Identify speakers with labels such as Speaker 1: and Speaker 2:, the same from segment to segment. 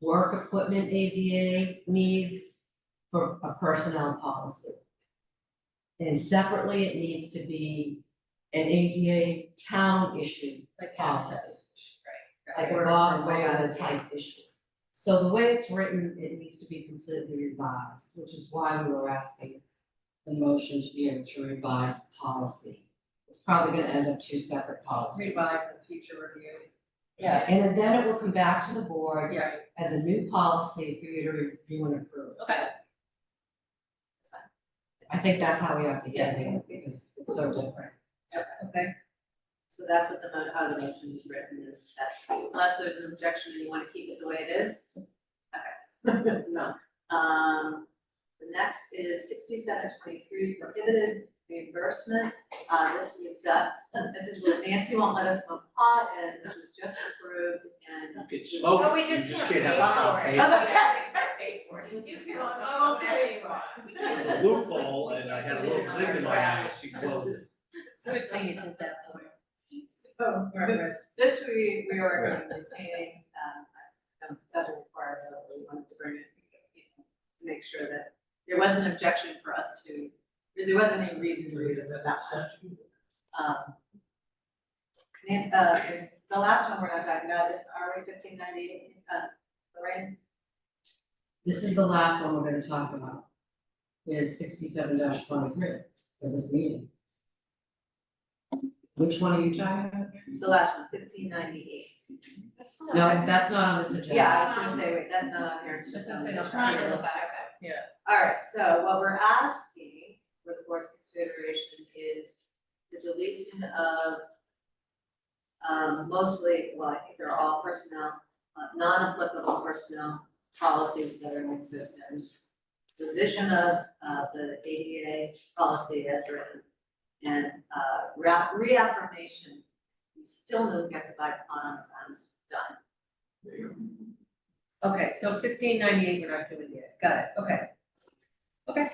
Speaker 1: work equipment ADA needs for a personnel policy. And separately, it needs to be an ADA town issue
Speaker 2: Like
Speaker 1: process.
Speaker 2: Right.
Speaker 1: like a law firm type issue. So the way it's written, it needs to be completely revised, which is why we were asking the motion to be able to revise the policy. It's probably gonna end up two separate policies.
Speaker 2: Revise the future review.
Speaker 1: Yeah, and then it will come back to the board
Speaker 2: Yeah,
Speaker 1: as a new policy for you to review and approve.
Speaker 2: okay.
Speaker 1: I think that's how we have to get to it, because it's so different.
Speaker 2: Okay.
Speaker 3: So that's what the, mo- how the motion is written, is that's, unless there's an objection and you wanna keep it the way it is. Okay, no. Um, the next is sixty-seven twenty-three prohibited reimbursement. Uh, this is, uh, this is where Nancy won't let us smoke pot, and this was just approved, and.
Speaker 4: You could smoke,
Speaker 5: But we
Speaker 4: you
Speaker 5: just
Speaker 4: just
Speaker 5: can't
Speaker 4: can't have
Speaker 5: pay
Speaker 4: alcohol.
Speaker 5: for it.
Speaker 4: pay.
Speaker 5: Yeah.
Speaker 3: Oh, yeah, right.
Speaker 5: You can smoke if you want.
Speaker 3: We
Speaker 4: It's
Speaker 3: can't-
Speaker 4: a loophole, and I had a little clip in my eye, she closed it.
Speaker 2: It's a good thing you did that though.
Speaker 3: Oh,
Speaker 2: We're at risk.
Speaker 3: This we, we are going to maintain, um, I- um, doesn't require, that we wanted to bring it, you know, to make sure that there was an objection for us to, there wasn't any reason to revisit that one. Um, and, uh, the last one we're not talking about is RA fifteen ninety-eight, uh, Lorraine,
Speaker 1: This is the last one we're gonna talk about, is sixty-seven twenty-three for this meeting. Which one are you talking about?
Speaker 3: the last one, fifteen ninety-eight.
Speaker 1: No, that's not on this agenda.
Speaker 3: Yeah, I was gonna say, wait, that's not on here, it's just
Speaker 2: Just gonna
Speaker 3: on
Speaker 2: say,
Speaker 3: the-
Speaker 2: I'm trying to look
Speaker 3: Okay.
Speaker 2: back.
Speaker 3: All right, so what we're asking for the board's consideration is the deletion of um, mostly, well, I think they're all personnel, uh, non-applicable personnel policies that are in existence. The Revision of, uh, the ADA policy as written and, uh, rea- reaffirmation. We still don't get to buy on time, it's done.
Speaker 2: Okay, so fifteen ninety-eight, we're not doing yet, got it, okay. Okay.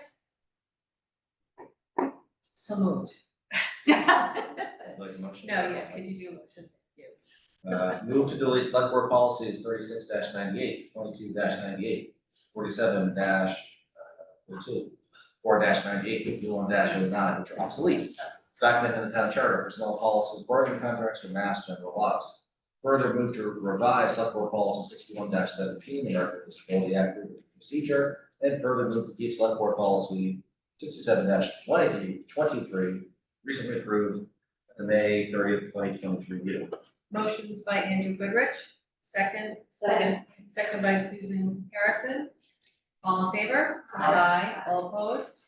Speaker 2: So moved.
Speaker 6: Like a motion?
Speaker 2: No, yeah, can you do a motion?
Speaker 6: Uh, move to delete select board policies thirty-six 98 22 ninety-eight, forty-seven dash, uh, two, four dash ninety-eight, fifty-one dash oh-nine, which are obsolete. Documented in the town charter, personnel policies, bargaining contracts, or mass general laws. Further move to revise select board policy sixty-one seventeen, the American with Disability Act Review procedure, and further move to keep select board policy sixty-seven 23 recently approved at the May thirtieth, twenty twenty-three meeting.
Speaker 2: Motion's by Andrew Goodrich, second,
Speaker 3: Second.
Speaker 2: second by Susan Harrison. All in favor?
Speaker 3: Aye.
Speaker 2: all opposed?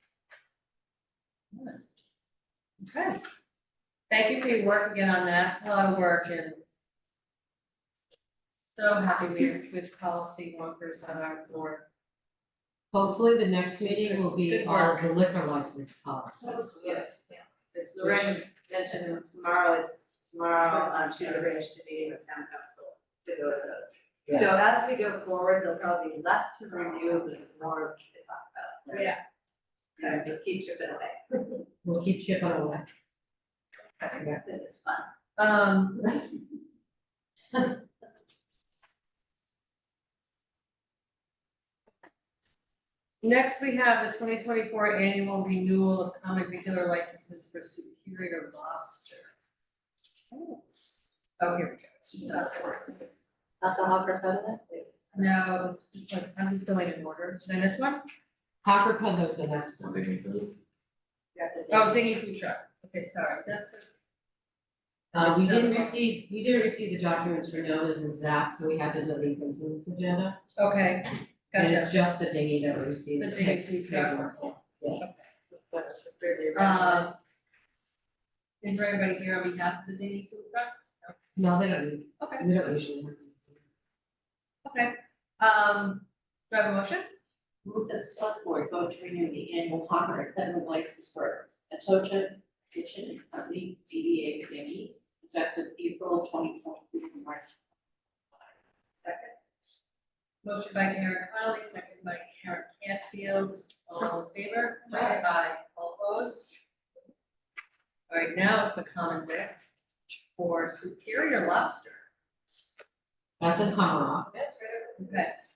Speaker 2: Okay. Thank you for your work again on that, it's a lot of work and so happy we're with policy workers on our board.
Speaker 1: Hopefully, the next meeting will be
Speaker 2: Good
Speaker 1: all
Speaker 2: work.
Speaker 1: of the liquor license policies.
Speaker 3: That's good. It's
Speaker 2: Lorraine
Speaker 3: Lorraine mentioned tomorrow, tomorrow, um, she arranged a meeting with town council to go to those. So as we go forward, there'll probably be less to review, but more to talk about.
Speaker 2: Yeah.
Speaker 3: You know, just keep chipping away,
Speaker 1: We'll keep chipping away.
Speaker 3: because it's fun.
Speaker 2: Um. Next, we have the twenty twenty-four annual renewal of common regular licenses for Superior Lobster. Oh, here we go.
Speaker 3: Alcohol proponent?
Speaker 2: No, it's, I'm going in order. Did I miss one?
Speaker 1: Hopper Peddler's the next one.
Speaker 6: Something we could-
Speaker 2: Oh, Dingy Food Truck. Okay, sorry. That's,
Speaker 1: Uh, we
Speaker 2: Yes,
Speaker 1: didn't
Speaker 2: no.
Speaker 1: receive, we didn't receive the documents for notice and Zap, so we had to delete them from this agenda.
Speaker 2: okay.
Speaker 1: And
Speaker 2: Gotcha.
Speaker 1: it's just the dinghy that we received.
Speaker 2: The Dingy Food Truck.
Speaker 3: Fairly random.
Speaker 2: Um. Is there anybody here on behalf of the Dingy Food Truck?
Speaker 1: No, they don't,
Speaker 2: Okay.
Speaker 1: we don't usually. have them.
Speaker 2: Okay, um, do I have a motion?
Speaker 7: Move that the select board vote to renew the annual hopper and peddler license for Atocha Kitchen and Company, DBA Committee, effective April twenty twenty-three to March.
Speaker 3: Second,
Speaker 2: Motion by Karen Connolly, second by Karen Canfield, all in favor?
Speaker 3: Aye.
Speaker 2: Aye, all opposed? All right, now it's the common vic for Superior Lobster.
Speaker 1: That's in Hopper.
Speaker 2: That's right. Okay,